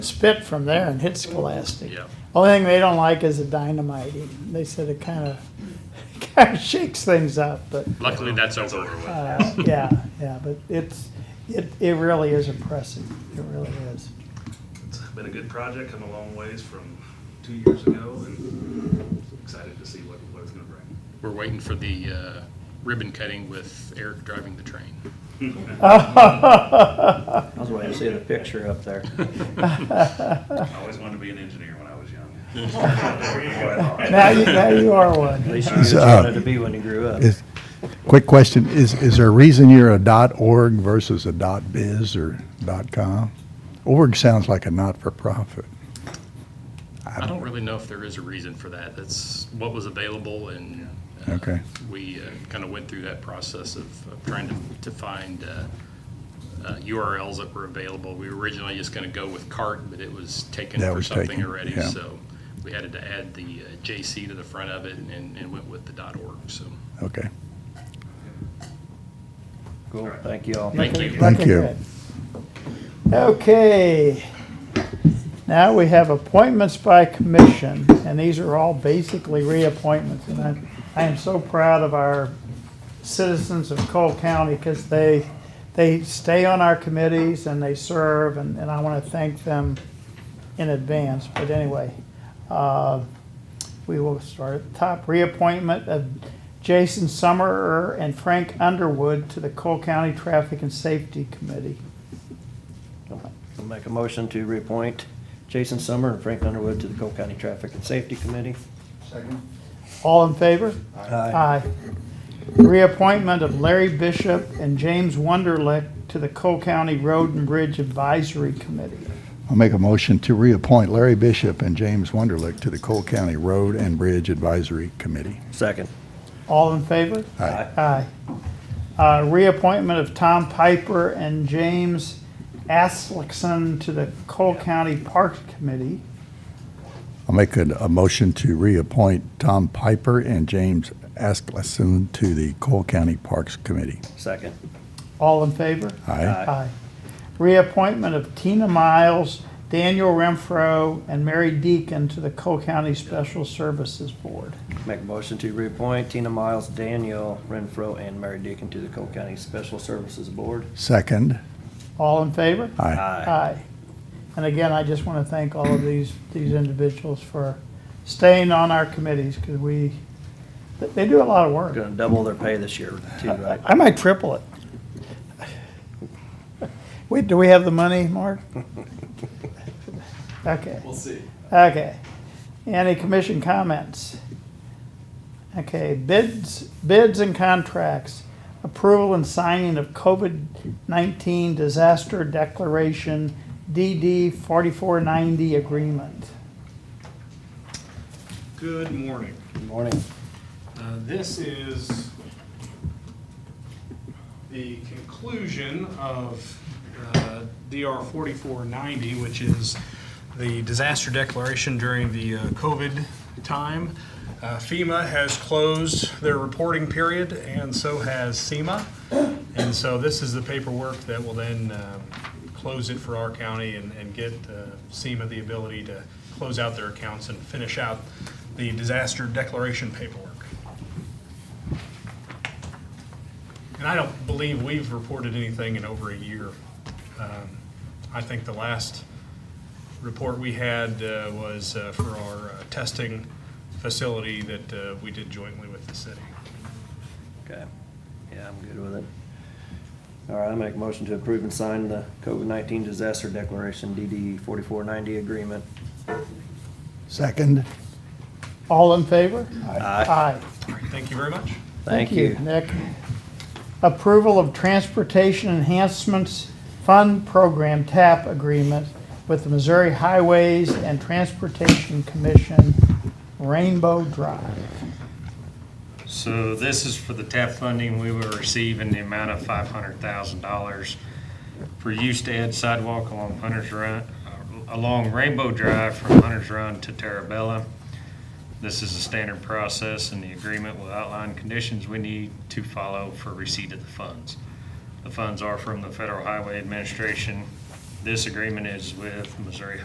spit from there and hit Scholastic. Yep. Only thing they don't like is the dynamiting. They said it kind of kind of shakes things up, but Luckily, that's over with. uh, yeah, yeah, but it's it, it really is impressive. It really is. It's been a good project, come a long ways from two years ago, and excited to see what, what it's gonna bring. We're waiting for the uh, ribbon cutting with Eric driving the train. I was waiting to see the picture up there. I always wanted to be an engineer when I was young. uh, Now you now you are one. At least you knew what you uh, wanted to be when you grew up. Is, quick question, is, is there a reason you're a dot org versus a dot biz or dot com? Org sounds like a not-for-profit. I don't really know if there is a reason for that. That's what was available and. uh, Okay. We kind of went through that process of of trying to, to find uh, uh, URLs that were available. We were originally just going to go with cart, but it was taken That for was something taken, already. yeah. So we had to add the uh, JC to the front of it and, and went with the dot org, so. Okay. Cool, thank you all. Thank you. Thank Looking you. good. Okay. Now we have appointments by commission, and these are all basically reappointments. And I, I am so proud of our citizens of Cole County because they, they stay on our committees and they serve, and, and I want to thank them in advance. But anyway, uh, we will start at the top. Reappointment of Jason Summerer and Frank Underwood to the Cole County Traffic and Safety Committee. I'll make a motion to reappoint Jason Summer and Frank Underwood to the Cole County Traffic and Safety Committee. All in favor? Aye. Aye. Reappointment of Larry Bishop and James Wunderlich to the Cole County Road and Bridge Advisory Committee. I'll make a motion to reappoint Larry Bishop and James Wunderlich to the Cole County Road and Bridge Advisory Committee. Second. All in favor? Aye. Aye. Uh, Reappointment of Tom Piper and James Aslickson to the Cole County Parks Committee. I'll make a, a motion to reappoint Tom Piper and James Askleson to the Cole County Parks Committee. Second. All in favor? Aye. Aye. Reappointment of Tina Miles, Daniel Renfro, and Mary Deacon to the Cole County Special Services Board. Make a motion to reappoint Tina Miles, Daniel Renfro, and Mary Deacon to the Cole County Special Services Board. Second. All in favor? Aye. Aye. And again, I just want to thank all of these, these individuals for staying on our committees, because we, they do a lot of work. Gonna double their pay this year too, right? I might triple it. Wait, do we have the money, Mark? Okay. We'll see. Okay. Any commission comments? Okay, bids, bids and contracts. Approval and signing of COVID-19 Disaster Declaration DD 4490 agreement. Good morning. Good morning. Uh, This is the conclusion of uh, DR 4490, which is the disaster declaration during the uh, COVID time. Uh, FEMA has closed their reporting period, and so has SEMA. And so this is the paperwork that will then um, close it for our county and and get uh, SEMA the ability to close out their accounts and finish out the disaster declaration paperwork. And I don't believe we've reported anything in over a year. Um, I think the last report we had uh, was uh, for our uh, testing facility that uh, we did jointly with the city. Okay, yeah, I'm good with it. All right, I make a motion to approve and sign the COVID-19 Disaster Declaration DD 4490 agreement. Second. All in favor? Aye. Aye. All right, Thank you very much. Thank you. Nick. Approval of Transportation Enhancements Fund Program TAP Agreement with the Missouri Highways and Transportation Commission, Rainbow Drive. So this is for the TAP funding we will receive in the amount of five hundred thousand dollars for use to add sidewalk along Hunter's Run, uh, along Rainbow Drive from Hunter's Run to Terabella. This is a standard process and the agreement will outline conditions we need to follow for receipt of the funds. The funds are from the Federal Highway Administration. This agreement is with Missouri